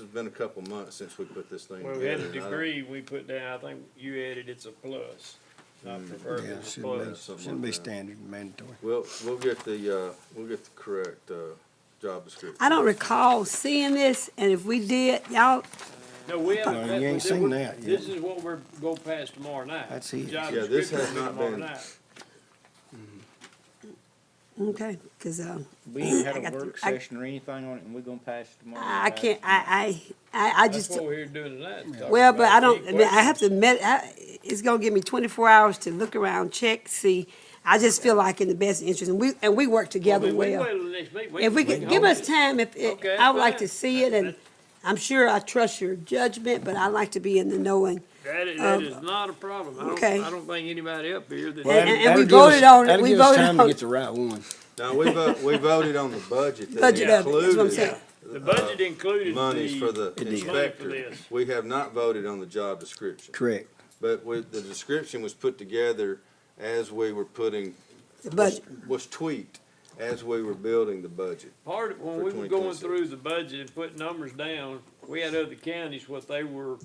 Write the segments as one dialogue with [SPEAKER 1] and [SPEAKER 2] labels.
[SPEAKER 1] It's been a couple months since we put this thing
[SPEAKER 2] Well,
[SPEAKER 1] together.
[SPEAKER 2] we had a
[SPEAKER 1] and I don't-
[SPEAKER 2] degree we put down, I think you added it's a plus, not
[SPEAKER 1] Mm.
[SPEAKER 2] preferred
[SPEAKER 3] Yeah,
[SPEAKER 2] as a
[SPEAKER 3] shouldn't
[SPEAKER 2] plus.
[SPEAKER 1] something
[SPEAKER 3] be, shouldn't
[SPEAKER 1] like
[SPEAKER 3] be
[SPEAKER 1] that.
[SPEAKER 3] standard mandatory.
[SPEAKER 1] We'll, we'll get the, uh, we'll get the correct, uh, job description.
[SPEAKER 4] I don't recall seeing this, and if we did, y'all,
[SPEAKER 2] No, we haven't.
[SPEAKER 3] No, you ain't seen that yet.
[SPEAKER 2] This is what we're go past tomorrow night.
[SPEAKER 3] That's it.
[SPEAKER 2] Job
[SPEAKER 1] Yeah, this has
[SPEAKER 2] description
[SPEAKER 1] not
[SPEAKER 2] tomorrow
[SPEAKER 1] been-
[SPEAKER 2] night.
[SPEAKER 4] okay, uh, because,
[SPEAKER 5] We ain't
[SPEAKER 4] I
[SPEAKER 5] had a
[SPEAKER 4] got
[SPEAKER 5] work
[SPEAKER 4] the- I-
[SPEAKER 5] session or anything on it, and we're gonna pass it tomorrow.
[SPEAKER 4] I
[SPEAKER 5] night.
[SPEAKER 4] can't, I, I, I, I
[SPEAKER 2] That's
[SPEAKER 4] just,
[SPEAKER 2] what we're here doing tonight. is talking
[SPEAKER 4] well, but
[SPEAKER 2] about
[SPEAKER 4] I
[SPEAKER 2] it.
[SPEAKER 4] don't, I mean, I
[SPEAKER 2] Equation.
[SPEAKER 4] have to admit, I, it's gonna give me twenty-four hours to look around, check, see. I just feel like in the best interest, and we, and we work together
[SPEAKER 2] Well, we can
[SPEAKER 4] well.
[SPEAKER 2] wait till the next meeting.
[SPEAKER 4] If we
[SPEAKER 2] can
[SPEAKER 4] could, give
[SPEAKER 2] hold
[SPEAKER 4] us
[SPEAKER 2] it.
[SPEAKER 4] time, if, it-
[SPEAKER 2] Okay,
[SPEAKER 4] I would like to
[SPEAKER 2] fine.
[SPEAKER 4] see it, and I'm sure I trust your judgment, but I'd like to be in the knowing.
[SPEAKER 2] That is, that is not a problem. I don't,
[SPEAKER 4] um, okay.
[SPEAKER 2] I don't think anybody up here that.
[SPEAKER 4] And- and- and we
[SPEAKER 3] That'll give us-
[SPEAKER 4] voted on it.
[SPEAKER 3] that'll
[SPEAKER 4] We
[SPEAKER 3] give us
[SPEAKER 4] voted
[SPEAKER 3] time to
[SPEAKER 4] on-
[SPEAKER 3] get the right one.
[SPEAKER 1] Now, we vote, we voted on the budget that
[SPEAKER 4] Budget of it, that's what I'm
[SPEAKER 1] included
[SPEAKER 4] saying.
[SPEAKER 2] The budget included the.
[SPEAKER 1] monies for the
[SPEAKER 3] did.
[SPEAKER 2] Money
[SPEAKER 1] inspector.
[SPEAKER 2] for this.
[SPEAKER 1] We have not voted on the job description.
[SPEAKER 3] Correct.
[SPEAKER 1] But with, the description was put together as we were putting.
[SPEAKER 4] The budget.
[SPEAKER 1] Was tweaked as we were building the budget.
[SPEAKER 2] Part of, when
[SPEAKER 1] for
[SPEAKER 2] we were going
[SPEAKER 1] 2026.
[SPEAKER 2] through the budget and putting numbers down, we had other counties, what they were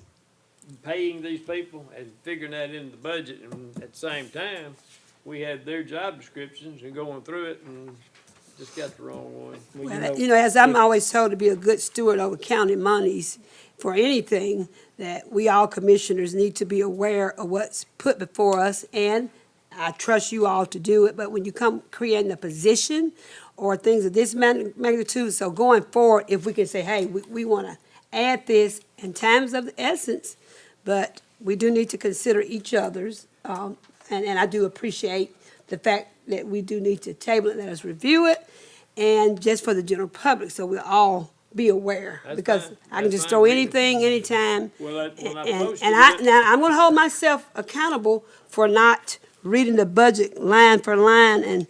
[SPEAKER 2] paying these people and figuring that into the budget, and at the same time, we had their job descriptions and going through it and just got the wrong one.
[SPEAKER 5] Well, you
[SPEAKER 4] Well,
[SPEAKER 5] know,
[SPEAKER 4] You know, as I'm always told to be a good steward over county monies for anything, that we all commissioners need to be aware of what's put before us, and I trust you all to do it, but when you come creating a position or things of this mag- magnitude, so going forward, if we can say, hey, we, we wanna add this in times of the essence, but we do need to consider each other's, um, and, and I do appreciate the fact that we do need to table it, let us review it, and just for the general public, so we all be aware.
[SPEAKER 2] That's
[SPEAKER 4] Because
[SPEAKER 2] fine.
[SPEAKER 4] I can
[SPEAKER 2] That's
[SPEAKER 4] just
[SPEAKER 2] fine.
[SPEAKER 4] throw anything, anytime.
[SPEAKER 2] Well, I- when I
[SPEAKER 4] And,
[SPEAKER 2] posted
[SPEAKER 4] and I,
[SPEAKER 2] it-
[SPEAKER 4] now, I'm gonna hold myself accountable for not reading the budget line for line and,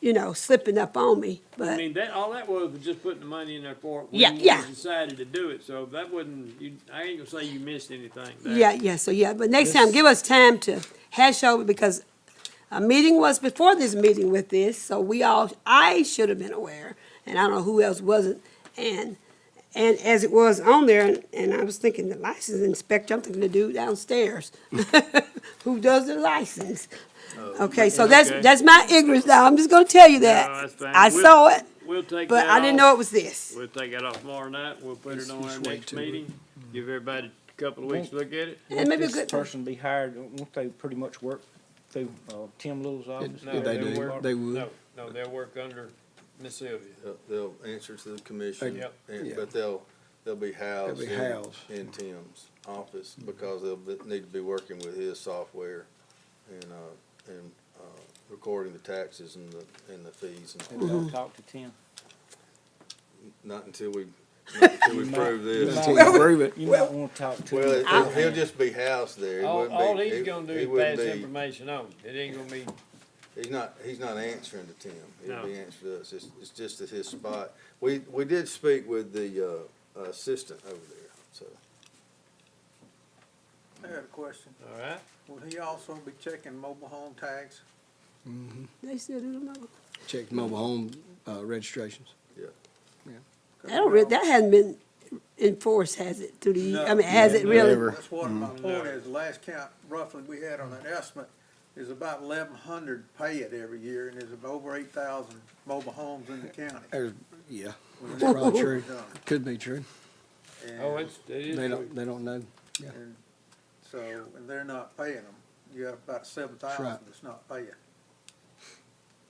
[SPEAKER 4] you know, slipping up on me,
[SPEAKER 2] I
[SPEAKER 4] but,
[SPEAKER 2] mean, that, all that was was just putting the money in there for it. when
[SPEAKER 4] Yeah,
[SPEAKER 2] you
[SPEAKER 4] yeah.
[SPEAKER 2] Decided to do it, so that wasn't, you, I ain't gonna say you missed anything there.
[SPEAKER 4] yeah, yeah, so, yeah, but next time, give us time to hash over, because a meeting was before this meeting with this, so we all, I should have been aware, and I don't know who else wasn't, and, and as it was on there, and I was thinking the license inspector, I'm thinking the dude downstairs, who does the license? Okay, so that's,
[SPEAKER 2] Oh, Okay.
[SPEAKER 4] that's my ignorance now, I'm just gonna tell you that.
[SPEAKER 2] that's fine.
[SPEAKER 4] I
[SPEAKER 2] We'll-
[SPEAKER 4] saw it,
[SPEAKER 2] We'll take
[SPEAKER 4] but
[SPEAKER 2] that
[SPEAKER 4] I didn't
[SPEAKER 2] off.
[SPEAKER 4] know it was this.
[SPEAKER 2] We'll take that off tomorrow night, we'll put it on our
[SPEAKER 3] just wait
[SPEAKER 2] next
[SPEAKER 3] till we-
[SPEAKER 2] meeting, give everybody a couple of weeks to look at it.
[SPEAKER 4] And maybe a
[SPEAKER 5] this
[SPEAKER 4] good-
[SPEAKER 5] Person be hired, uh, won't they pretty much work through, uh, Tim Little's office?
[SPEAKER 2] No,
[SPEAKER 3] They
[SPEAKER 2] they'll
[SPEAKER 3] do.
[SPEAKER 2] work-
[SPEAKER 3] They would.
[SPEAKER 2] No, no, they'll work under Miss Sylvia.
[SPEAKER 1] They'll- They'll answer to the commission.
[SPEAKER 2] Yep.
[SPEAKER 1] and-
[SPEAKER 3] Yeah.
[SPEAKER 1] But they'll, they'll be housed.
[SPEAKER 3] They'll be
[SPEAKER 1] in-
[SPEAKER 3] housed. Mm-hmm.
[SPEAKER 1] In Tim's office because they'll be- need to be working with his software and, uh, and, uh, recording the taxes and the, and the fees and
[SPEAKER 5] Have y'all talked to Tim?
[SPEAKER 1] Not until we, not until we
[SPEAKER 5] You might-
[SPEAKER 1] prove
[SPEAKER 5] you
[SPEAKER 1] this.
[SPEAKER 5] might-
[SPEAKER 3] Until you prove it.
[SPEAKER 5] You might wanna talk to
[SPEAKER 1] Well,
[SPEAKER 5] him.
[SPEAKER 1] it- he'll just be housed there. He
[SPEAKER 2] All,
[SPEAKER 1] wouldn't be-
[SPEAKER 2] all he's
[SPEAKER 1] he-
[SPEAKER 2] gonna do
[SPEAKER 1] he
[SPEAKER 2] is
[SPEAKER 1] wouldn't
[SPEAKER 2] pass
[SPEAKER 1] be-
[SPEAKER 2] information on, it ain't gonna be,
[SPEAKER 1] He's not, he's not answering to Tim. He'll
[SPEAKER 2] No.
[SPEAKER 1] be answering to us. It's, it's just at his spot. We, we did speak with the, uh, assistant over there, so.
[SPEAKER 6] I had a question.
[SPEAKER 2] all right?
[SPEAKER 6] Will he also be checking mobile home tags?
[SPEAKER 4] They still do the mobile.
[SPEAKER 3] Check mobile home, uh, registrations.
[SPEAKER 4] I don't re, that hasn't been enforced, has it, through the, I mean, has it really?
[SPEAKER 3] Never. Mm-hmm.
[SPEAKER 6] That's what my point is, last count roughly we had on that estimate is about eleven hundred pay it every year, and there's over eight thousand mobile homes in the county.
[SPEAKER 3] There's, yeah, that's probably true.
[SPEAKER 6] Done.
[SPEAKER 3] Could be true.
[SPEAKER 6] And-
[SPEAKER 2] Oh, it's, it is,
[SPEAKER 3] They
[SPEAKER 2] true.
[SPEAKER 3] don't, they don't know.
[SPEAKER 6] and So, and they're not paying them. You have about seven thousand
[SPEAKER 3] right.
[SPEAKER 6] that's not paying.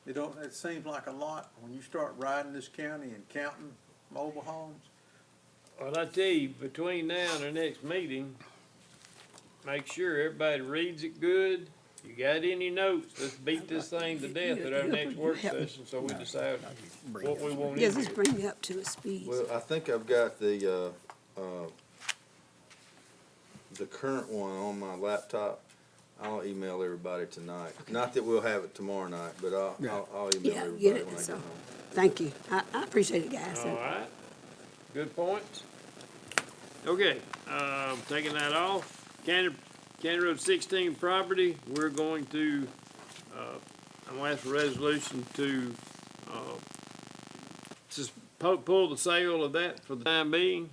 [SPEAKER 6] It don't, it seems like a lot, when you start riding this county and counting mobile homes,
[SPEAKER 2] well, I tell you, between now and our next meeting, make sure everybody reads it good. You got any notes, let's beat this thing to death at our next work session, so we decide what we want
[SPEAKER 4] Yes,
[SPEAKER 2] in
[SPEAKER 4] let's
[SPEAKER 2] here.
[SPEAKER 4] bring it up to its speed.
[SPEAKER 1] Well, I think I've got the, uh, uh, the current one on my laptop. I'll email everybody tonight. Not that we'll have it tomorrow night, but I'll,
[SPEAKER 3] Yeah.
[SPEAKER 1] I'll, I'll email
[SPEAKER 4] Yeah,
[SPEAKER 1] everybody
[SPEAKER 4] get
[SPEAKER 1] when I
[SPEAKER 4] it,
[SPEAKER 1] get
[SPEAKER 4] so.
[SPEAKER 1] home.
[SPEAKER 4] Thank you. I, I appreciate it, guys.
[SPEAKER 2] All right, good points. Okay, um, taking that off, County, County Road sixteen property, we're going to, uh, I'm gonna ask for resolution to, uh, just pu- pull the sale of that for the time being.